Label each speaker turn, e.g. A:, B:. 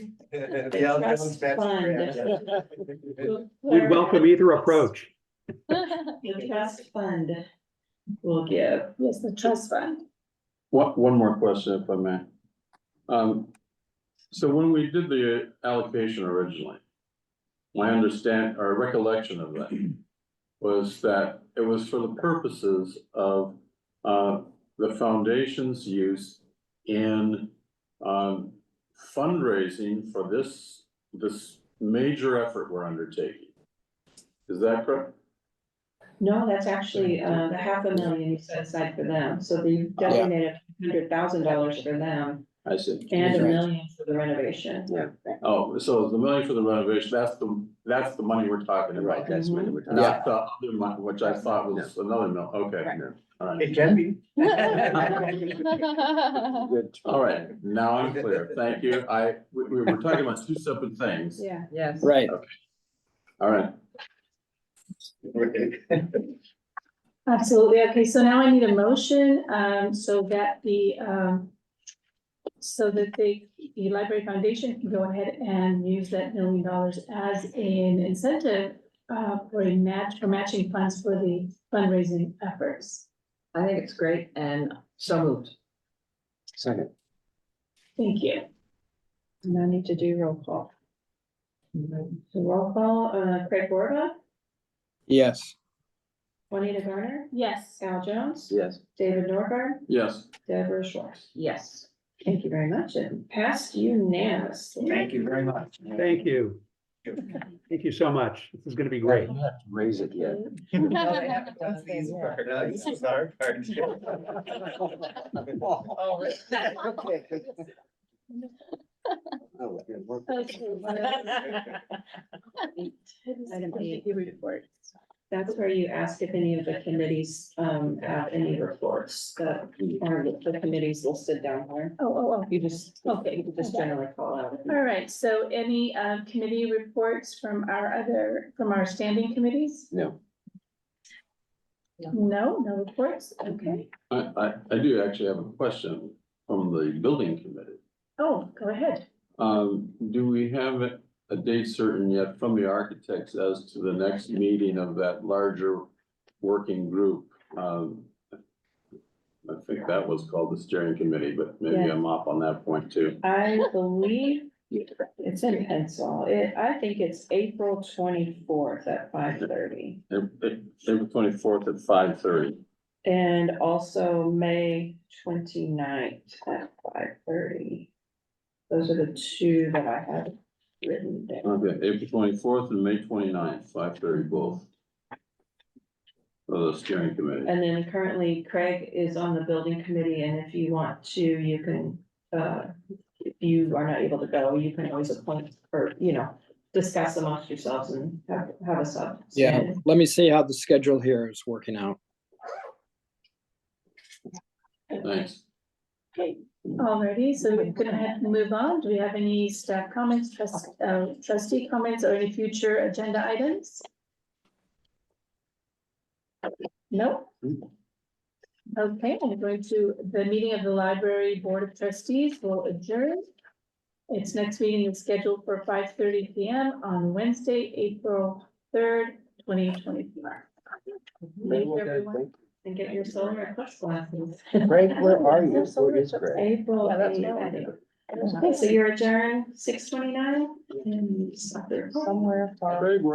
A: The other
B: trust
A: one's bad.
B: fund.
C: We'd welcome either approach.
B: The trust fund will give.
D: Yes, the trust fund.
E: One, one more question if I may. Um, so when we did the allocation originally. My understand, or recollection of that was that it was for the purposes of, uh, the foundation's use in. Um, fundraising for this, this major effort we're undertaking. Is that correct?
B: No, that's actually, uh, the half a million you set aside for them, so they designated hundred thousand dollars for them
E: I see.
B: and a million for the renovation.
E: Oh, so the money for the renovation, that's the, that's the money we're talking about.
B: that's what
D: we're
E: Not the other money, which I thought was another mill, okay.
D: Right.
E: All right,
A: It can be.
E: all right, now I'm clear, thank you, I, we, we were talking about two separate things,
B: Yeah.
D: Yes.
F: Right.
E: all right.
D: Absolutely. Okay, so now I need a motion, um, so that the, um, so that the, the Library Foundation can go ahead and use that million dollars as an incentive uh, for a match, for matching funds for the fundraising efforts.
G: I think it's great and so moved.
F: Second.
D: Thank you.
B: And I need to do roll call. So roll call, uh, Craig Borba,
F: Yes.
B: Juanita Garner,
D: Yes.
B: Sal Jones,
E: Yes.
B: David Norgard,
E: Yes,
B: Deborah Schwartz.
G: Yes.
B: Thank you very much and passed unanimously.
A: Thank you very much.
C: Thank you. Thank you so much. This is gonna be great.
F: You have to Raise it yet.
A: No, they haven't done these part. No, This is our part.
B: Item eight.
D: report.
B: That's where you ask if any of the committees, um, have any reports that, or the committees listed down here.
D: Oh, oh, oh.
B: You just,
D: Okay.
B: you just generally call out. if you-
D: All right, so any uh, committee reports from our other, from our standing committees?
F: No.
D: No, no reports, okay.
E: I, I, I do actually have a question from the building committee.
D: Oh, go ahead.
E: Um, do we have a a date certain yet from the architects as to the next meeting of that larger working group? Um, I think that was called the steering committee, but maybe I'm off on that point too.
B: I believe it's in pencil. It, I think it's April twenty-fourth at five thirty.
E: April twenty-fourth at five thirty.
B: And also May 29th at five thirty. Those are the two that I had written down.
E: Okay, April twenty-fourth and May 29th, five thirty both. For the steering committee.
B: And then currently Craig is on the building committee and if you want to, you can, uh, if you are not able to go, you can always appoint or, you know, discuss amongst yourselves and have, have a sub.
F: Yeah, let me see how the schedule here is working out.
E: Thanks.
D: Okay, alrighty, so we can ahead and move on. Do we have any staff comments, trust, uh, trustee comments, or any future agenda items? No? Okay, I'm going to, the meeting of the library board of trustees will adjourn. Its next meeting is scheduled for five thirty P M on Wednesday, April third, twenty twenty-four. Thank you, everyone.
B: And get your solar plus glasses.
F: Greg, where are you?
D: There's no
F: Where is
D: solar
F: Greg?
B: April.
D: Yeah, that's what I
B: eighth. Okay, so you're adjourned six twenty-nine and. Somewhere
E: Craig,